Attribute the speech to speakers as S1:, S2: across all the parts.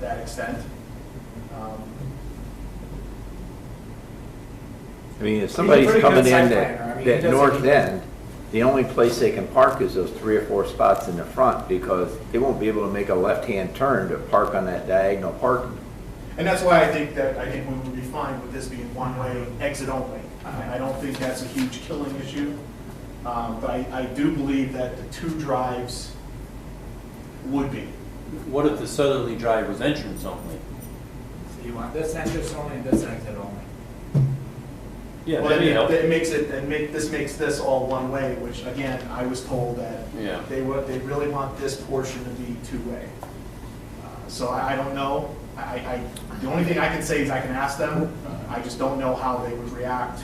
S1: that extent. Um,
S2: I mean, if
S1: He's a pretty
S2: somebody's
S1: good
S2: coming in
S1: site planner. I
S2: that,
S1: mean, he
S2: that
S1: does-
S2: north
S1: he-
S2: end, the only place they can park is those three or four spots in the front because they won't be able to make a left-hand turn to park on that diagonal parking.
S1: And that's why I think that, I think we would be fine with this being one-way, exit only. I I don't think that's a huge killing issue, Um, but I, I do believe that the two drives would be.
S3: What if the southerly drive was entrance only?
S4: So you want this entrance only and this exit only?
S3: Yeah,
S1: Well,
S3: that'd be
S1: it-
S3: helpful.
S1: It makes it, and make, this makes this all one-way, which again, I was told that
S3: Yeah.
S1: they would, they really want this portion to be two-way. Uh, So I, I don't know, I, I, the only thing I can say is I can ask them, I just don't know how they would react.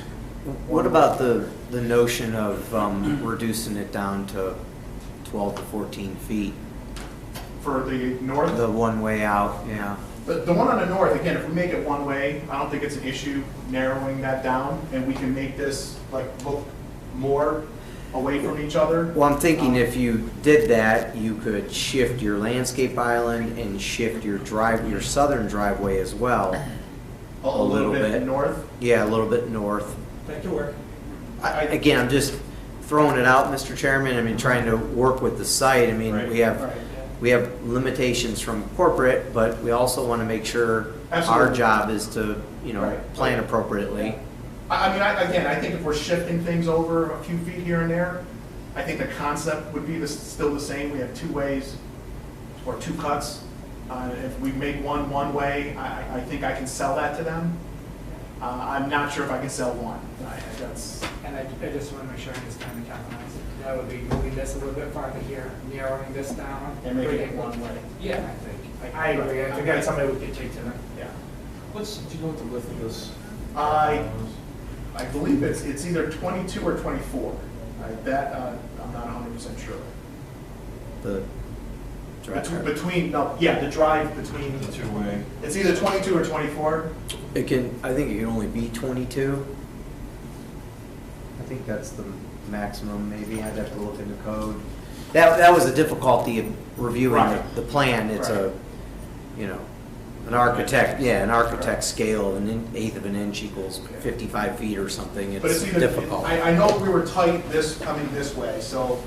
S5: What about the, the notion of um, reducing it down to 12 to 14 feet?
S1: For the north?
S5: The one-way out, yeah.
S1: The, the one on the north, again, if we make it one way, I don't think it's an issue narrowing that down, and we can make this like look more away from each other.
S5: Well, I'm thinking if you did that, you could shift your landscape island and shift your drive, your southern driveway as well.
S1: A a little bit north.
S5: Yeah, a little bit north.
S4: That could work.
S5: I- Again, I'm just throwing it out, Mr. Chairman, I mean, trying to work with the site. I mean, we
S1: Right,
S5: have,
S1: yeah.
S5: we have limitations from corporate, but we also want to make sure our
S1: Absolutely.
S5: job is to, you know,
S1: Right.
S5: plan appropriately.
S1: I, I mean, I, again, I think if we're shifting things over a few feet here and there, I think the concept would be the, still the same, we have two ways or two cuts. Uh, if we make one one way, I, I- I think I can sell that to them. Uh, I'm not sure if I can sell one, I, that's,
S4: And I, I just want to make sure I understand the compromise. That would be moving this a little bit farther here, narrowing this down.
S1: and make it
S4: creating-
S1: one way,
S4: Yeah, I think. I agree. I think that's something we could take to them.
S1: yeah.
S3: What's, do you know what the width of this?
S1: I, I believe it's, it's either 22 or 24. I- That, uh, I'm not 100% sure.
S5: The
S1: Between-
S5: drive.
S1: Between, no, yeah, the drive between,
S6: The two-way.
S1: it's either 22 or 24.
S5: It can, I think it can only be 22. I think that's the maximum, maybe, I'd have to look into code. That, that was a difficulty of reviewing the-
S1: Right.
S5: the plan, it's
S1: Right.
S5: a, you know, an architect, yeah, an architect scale, an in- eighth of an inch equals 55 feet or something,
S1: But
S5: it's
S1: it's either,
S5: difficult.
S1: I, I know we were tight this, coming this way, so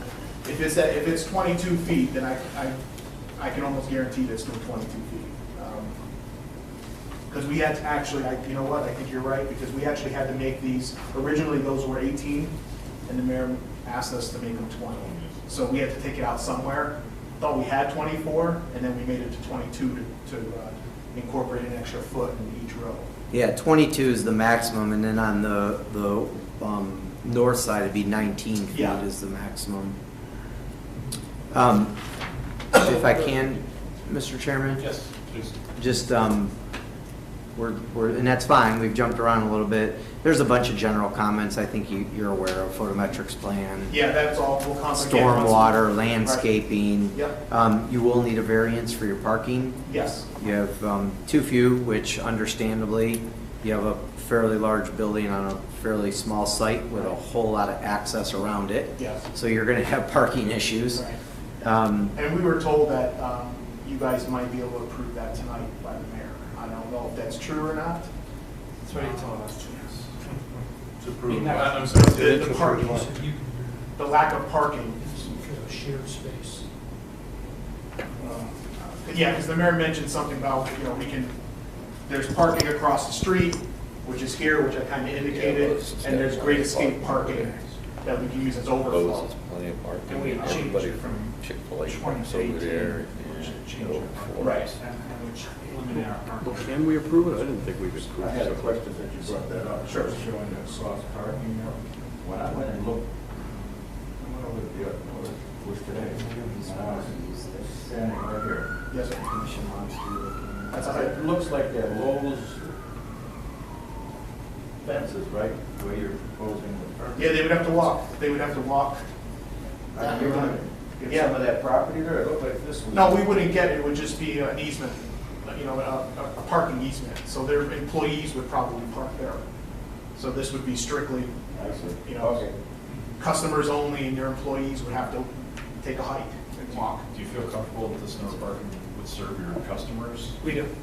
S1: if it's, at- if it's 22 feet, then I, I, I can almost guarantee this to 22 feet. Because we had to actually, I, you know what, I think you're right, because we actually had to make these, originally those were 18, and the mayor asked us to make them 20. So we had to take it out somewhere, thought we had 24, and then we made it to 22 to, to uh, incorporate an extra foot in each row.
S5: Yeah, 22 is the maximum, and then on the, the um, north side, it'd be 19 feet
S1: Yeah.
S5: is the maximum. Um, If I can, Mr. Chairman?
S6: Yes, please.
S5: Just, um, we're, we're, and that's fine, we've jumped around a little bit. There's a bunch of general comments I think you, you're aware of, photometrics plan.
S1: Yeah, that's all, we'll constantly.
S5: Stormwater, landscaping.
S1: Yep.
S5: Um, You will need a variance for your parking.
S1: Yes.
S5: You have um, too few, which understandably, you have a fairly large building on a fairly small site with a whole lot of access around it.
S1: Yes.
S5: So you're going to have parking issues. Um,
S1: And we were told that um, you guys might be able to approve that tonight by the mayor. I don't know if that's true or not.
S4: That's what he told us.
S6: To approve.
S4: No.
S6: I'm sorry.
S1: The- The parking, the lack of parking.
S7: some kind of shared space.
S1: um, Yeah, because the mayor mentioned something about, you know, we can, there's parking across the street, which is here, which I kind of indicated, and there's great escape parking that we can use as overflow.
S8: Bose is plenty of parking.
S4: And we changed it
S8: Everybody
S4: from
S8: Chick-fil-A
S4: 20
S8: parks
S4: to
S8: over
S4: 18,
S8: there
S4: which should
S8: and
S4: change
S8: Middle
S4: our parking.
S8: Florida.
S1: Right.
S4: And and which eliminate our parking.
S9: Can we approve it? I didn't think we could approve
S6: I had a
S9: it.
S6: question that you brought that up.
S1: Sure.
S6: Showing that soft parking there. When I went and looked, I went over the, it was today. And I was Standing right here.
S1: Yes, sir. That's all right.
S6: It looks like that Lowe's fences, right, where you're proposing the fence.
S1: Yeah, they would have to walk, they would have to walk. Uh,
S6: I mean, Uh, You're gonna get some of that property there, it looked like this was.
S1: No, we wouldn't get it, it would just be an easement, you know, a, a- a parking easement. So their employees would probably park there. So this would be strictly
S6: I see.
S1: you know.
S6: Okay.
S1: customers only, and their employees would have to take a hike and walk.
S10: Do you feel comfortable with this no parking
S6: would serve your customers?
S11: We do.